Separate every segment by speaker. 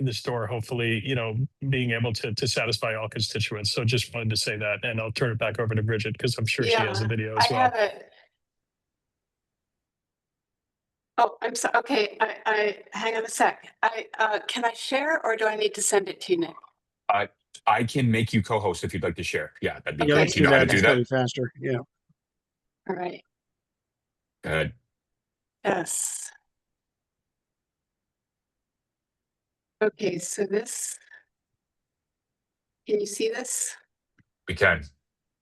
Speaker 1: in the store, hopefully, you know, being able to, to satisfy all constituents. So just wanted to say that, and I'll turn it back over to Bridget because I'm sure she has a
Speaker 2: Yeah,
Speaker 1: video as
Speaker 2: I
Speaker 1: well.
Speaker 2: have a. Oh, I'm sorry. Okay, I, I, hang on a sec. I, uh, can I share or do I need to send it to you, Nick?
Speaker 3: I can make you co-host if you'd like to share. Yeah, that'd be
Speaker 2: Yeah,
Speaker 3: great.
Speaker 2: let's
Speaker 3: You know how to do
Speaker 4: It's
Speaker 3: that?
Speaker 4: gotta be Faster, yeah.
Speaker 2: All right,
Speaker 3: Good.
Speaker 2: yes. Okay, so this. Can you see this?
Speaker 3: We can.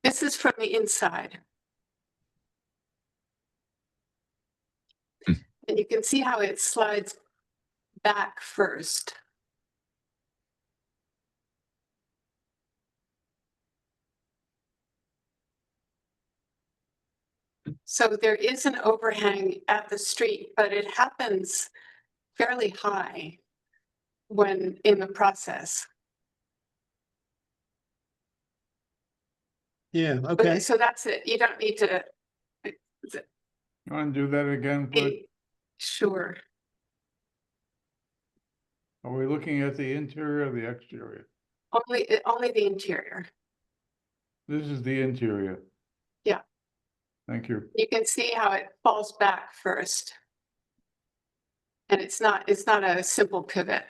Speaker 2: This is from the inside.
Speaker 3: Hmm.
Speaker 2: And you can see how it slides back first. So there is an overhang at the street, but it happens fairly high when in the process.
Speaker 4: Yeah,
Speaker 2: Okay,
Speaker 4: okay.
Speaker 2: so that's it. You don't need to
Speaker 5: You want to do that again? but
Speaker 2: be sure.
Speaker 5: Are we looking at the interior or the exterior?
Speaker 2: Only, uh, only the interior.
Speaker 5: This is the interior.
Speaker 2: Yeah.
Speaker 5: Thank you.
Speaker 2: You can see how it falls back first. And it's not, it's not a simple pivot.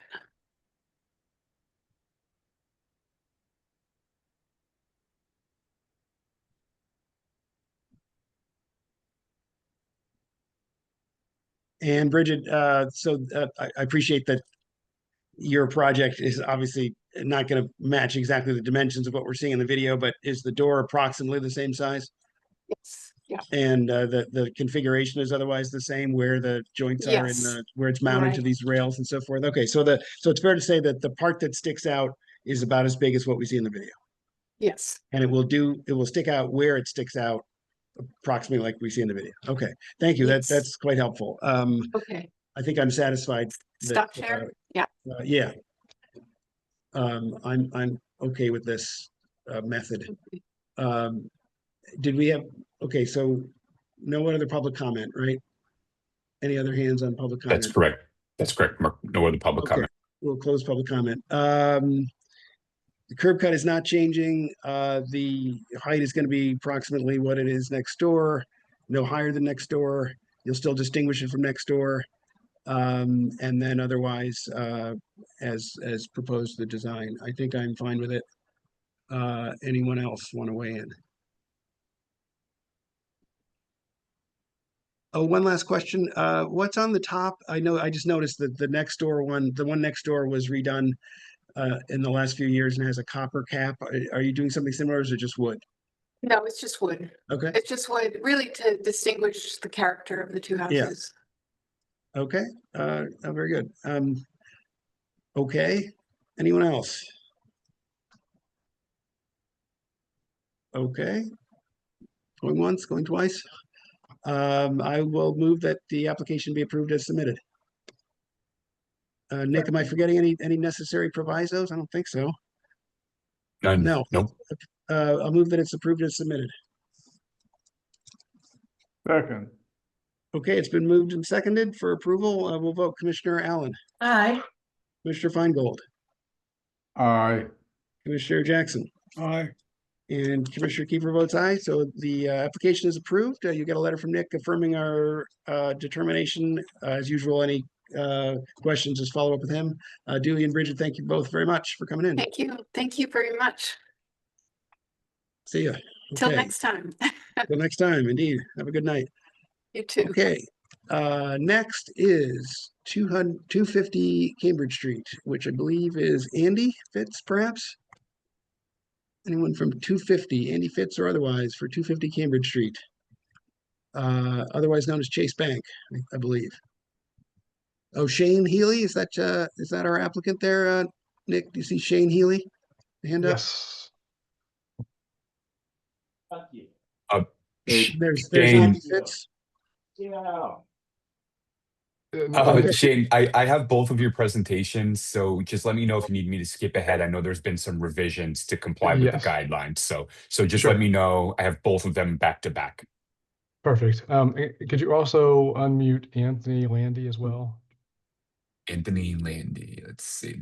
Speaker 4: And Bridget, uh, so, uh, I, I appreciate that your project is obviously not gonna match exactly the dimensions of what we're seeing in the video, but is the door approximately the same size?
Speaker 2: Yes, yeah,
Speaker 4: And, uh, the, the configuration is otherwise the same where the joints are and,
Speaker 2: Yes.
Speaker 4: uh, where it's mounted to
Speaker 2: Right.
Speaker 4: these rails and so forth? Okay, so the, so it's fair to say that the part that sticks out is about as big as what we see in the video?
Speaker 2: yes.
Speaker 4: and it will do, it will stick out where it sticks out approximately like we see in the video. Okay, thank you. That's,
Speaker 2: Yes.
Speaker 4: that's quite helpful. Um,
Speaker 2: Okay,
Speaker 4: I think I'm satisfied. that,
Speaker 2: stop
Speaker 4: uh,
Speaker 2: share. Yeah.
Speaker 4: uh, Yeah. Um, I'm, I'm okay with this, uh, method.
Speaker 2: Okay.
Speaker 4: Um, did we have, okay, so no other public comment, right? Any other hands on public comment?
Speaker 3: That's correct. That's correct. Mark. No other public
Speaker 4: Okay.
Speaker 3: comment.
Speaker 4: We'll close public comment. Um, the curb cut is not changing. Uh, the height is gonna be approximately what it is next door, no higher than next door. You'll still distinguish it from next door. Um, and then otherwise, uh, as, as proposed the design, I think I'm fine with it. Uh, anyone else want to weigh in? Oh, one last question. Uh, what's on the top? I know, I just noticed that the next door one, the one next door was redone uh, in the last few years and has a copper cap. Are, are you doing something similar or is it just wood?
Speaker 2: No, it's just wood.
Speaker 4: Okay,
Speaker 2: It's just wood, really to distinguish the character of the two houses.
Speaker 4: okay, uh, oh, very good. Um, okay, anyone else? Okay. Going once, going twice. Um, I will move that the application be approved as submitted. Uh, Nick, am I forgetting any, any necessary provisos? I don't think so.
Speaker 3: None.
Speaker 4: No.
Speaker 3: Um, Nope.
Speaker 4: Uh, I'll move that it's approved as submitted.
Speaker 5: Second,
Speaker 4: Okay, it's been moved and seconded for approval. Uh, we'll vote Commissioner Allen,
Speaker 6: Aye.
Speaker 4: Commissioner Feingold,
Speaker 5: aye.
Speaker 4: Commissioner Jackson,
Speaker 5: Aye.
Speaker 4: and Commissioner Kiefer votes aye. So the, uh, application is approved. Uh, you get a letter from Nick affirming our, uh, determination. Uh, as usual, any, uh, questions, just follow up with him. Uh, Dewey and Bridget, thank you both very much for coming in.
Speaker 2: Thank you, thank you very much.
Speaker 4: See ya.
Speaker 2: Till
Speaker 4: Okay,
Speaker 2: next time.
Speaker 4: Till next time, indeed. Have a good night.
Speaker 2: You too.
Speaker 4: Okay, uh, next is two hundred, two fifty Cambridge Street, which I believe is Andy Fitz perhaps? Anyone from two fifty, Andy Fitz or otherwise, for two fifty Cambridge Street? Uh, otherwise known as Chase Bank, I- I believe. Oh, Shane Healy, is that, uh, is that our applicant there, uh, Nick? Do you see Shane Healy? Hand up?
Speaker 7: Yes.
Speaker 3: Sh-
Speaker 4: There's, there's Andy
Speaker 3: Shane.
Speaker 4: Fitz.
Speaker 7: Oh,
Speaker 3: Uh,
Speaker 4: Okay.
Speaker 3: Shane, I, I have both of your presentations, so just let me know if you need me to skip ahead. I know there's been some revisions to comply with the
Speaker 7: Yes.
Speaker 3: guidelines, so so just
Speaker 7: Sure.
Speaker 3: let me know. I have both of them back to back.
Speaker 7: Perfect. Um, eh, could you also unmute Anthony Landy as well?
Speaker 3: Anthony Landy, let's see.